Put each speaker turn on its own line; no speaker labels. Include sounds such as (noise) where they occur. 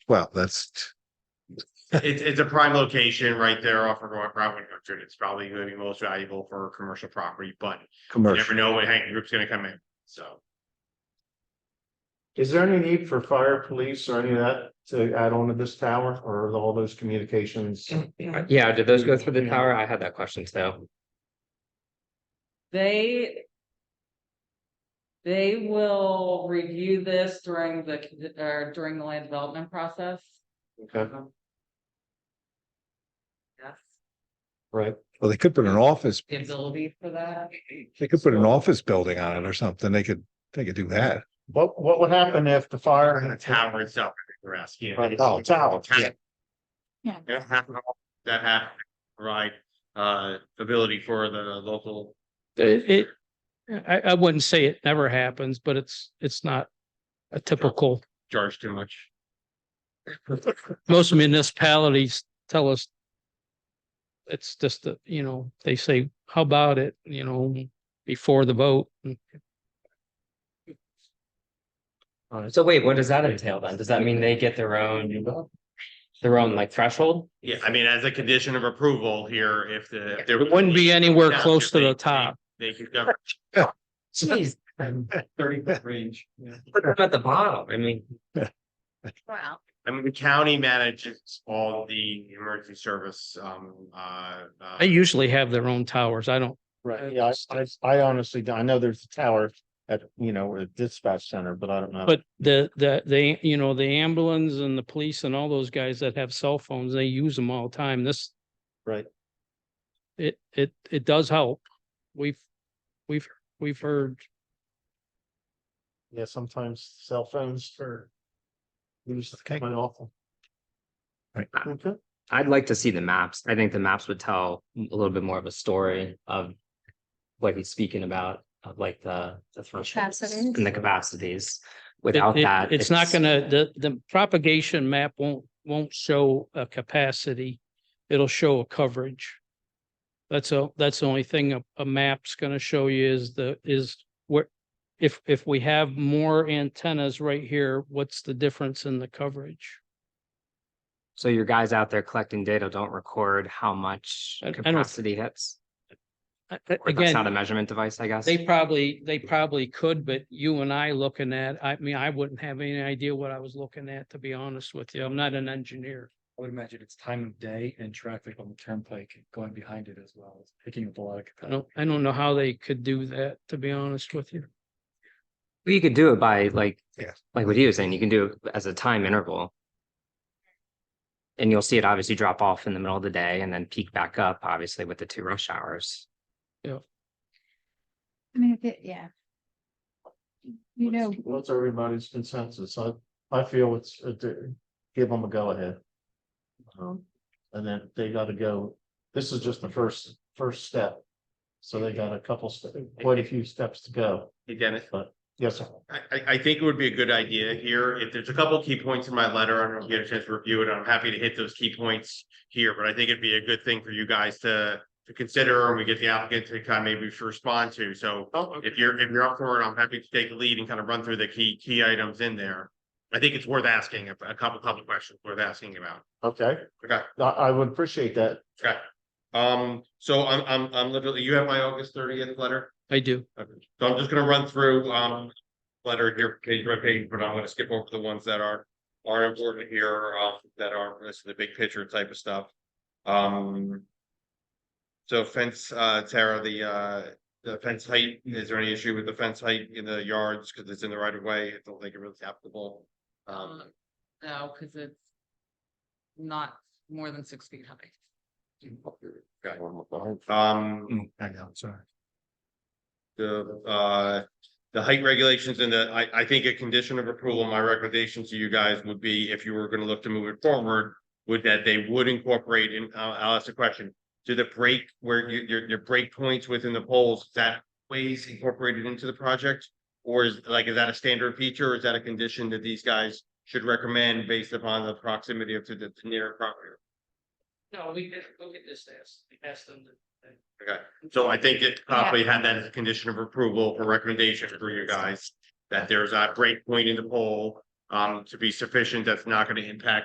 Well, that's,
It's, it's a prime location right there off of Route one hundred. It's probably gonna be most valuable for commercial property, but you never
commercial.
know when Hank Group's gonna come in, so.
Is there any need for fire, police or any of that to add on to this tower or all those communications?
Yeah, did those go through the tower? I had that question too.
They. They will review this during the, or during the land development process, Um,
Okay,
yes,
right.
Well, they could put an office,
the ability for that.
they could put an office building on it or something. They could, they could do that.
What, what would happen if the fire?
And the tower itself, you're asking.
Right, oh, tower, yeah.
Yeah. That have, that have, right, uh, ability for the local.
It, it, I, I wouldn't say it never happens, but it's, it's not a typical,
Charge too much.
most municipalities tell us it's just, that, you know, they say, how about it, you know, before the vote.
Um, So wait, what does that entail then? Does that mean they get their own? Their own like threshold?
Yeah, I mean, as a condition of approval here, if the. if there
It wouldn't be anywhere
Yeah,
close to
they-
the top.
They could govern.
(laughs)
Jeez, I'm
Thirty foot range.
at the bottom. I mean,
Wow.
I mean, the county manages all the emergency service, um, uh. uh,
They usually have their own towers. I don't,
Um, Right, yeah, I, I honestly, don't- I know there's a tower at, you know, a dispatch center, but I don't know.
but the, the, they, you know, the ambulance and the police and all those guys that have cell phones, they use them all the time. This.
Right.
It, it, it does help. We've, we've, we've heard
Yeah, sometimes cell phones are. Use
Okay.
my awful.
Right.
Okay,
I'd like to see the maps. I think the maps would tell a little bit more of a story of. What he's speaking about, of like the, the thresholds
Capacities.
and the capacities.
It-
Without
it-
that.
It's not gonna, the, the propagation map won't, won't show a capacity. It'll show a coverage. That's a, that's the only thing a, a map's gonna show you is the, is where, if, if we have more antennas right here, what's the difference in the coverage?
So your guys out there collecting data don't record how much
I- I don't-
capacity hits.
A- a-
Or that's not a
Again,
measurement device, I guess.
they probably, they probably could, but you and I looking at, I mean, I wouldn't have any idea what I was looking at, to be honest with you. I'm not an engineer.
I would imagine it's time of day and traffic on the turnpike going behind it as well, It's picking up a lot of.
I don't, I don't know how they could do that, to be honest with you.
Well, You could do it by like,
Yes.
like what he was saying, you can do it as a time interval. And you'll see it obviously drop off in the middle of the day and then peak back up, obviously with the two rush hours.
I mean, if it, yeah. You know,
What's- what's everybody's consensus? I, I feel it's, a do- give them a go ahead. Um, and then they gotta go, this is just the first, first step. So they got a couple, ste- quite a few steps to go,
Hey, Dennis.
but yes, sir.
I, I, I think it would be a good idea here, if there's a couple key points in my letter, I don't know if you had a chance to review it, I'm happy to hit those key points here, but I think it'd be a good thing for you guys to, to consider, and we get the applicant to kind of maybe respond to, so
Oh,
if you're, if you're up for it, I'm happy to take the lead and kind of run through the key, key items in there. I think it's worth asking, a a couple, couple questions worth asking about.
Okay,
Okay.
I, I would appreciate that.
Okay, um, so I'm, I'm, I'm literally, you have my August thirtieth letter?
I do.
Okay. So I'm just gonna run through, um, letter here, page by page, but I'm gonna skip over the ones that are, are important here, uh, that are, this is the big picture type of stuff. Um. So fence, uh, Tara, the, uh, the fence height, is there any issue with the fence height in the yards, cause it's in the right of way, I don't think it really is applicable. Um,
No, because it's not more than six feet high.
okay. um.
Mm, I know, sorry.
the uh. The height regulations and the, I I think a condition of approval, my recommendation to you guys would be if you were gonna look to move it forward. Would that they would incorporate and I'll I'll ask a question, do the break where your your your break points within the poles, is that ways incorporated into the project? Or is like, is that a standard feature? or Is that a condition that these guys should recommend based upon the proximity of to the the near property?
No, we could, we could just ask, ask them to.
Okay, so I think it probably had that as a condition of approval or recommendation for you guys. That there's a break point in the poll um to be sufficient, that's not gonna impact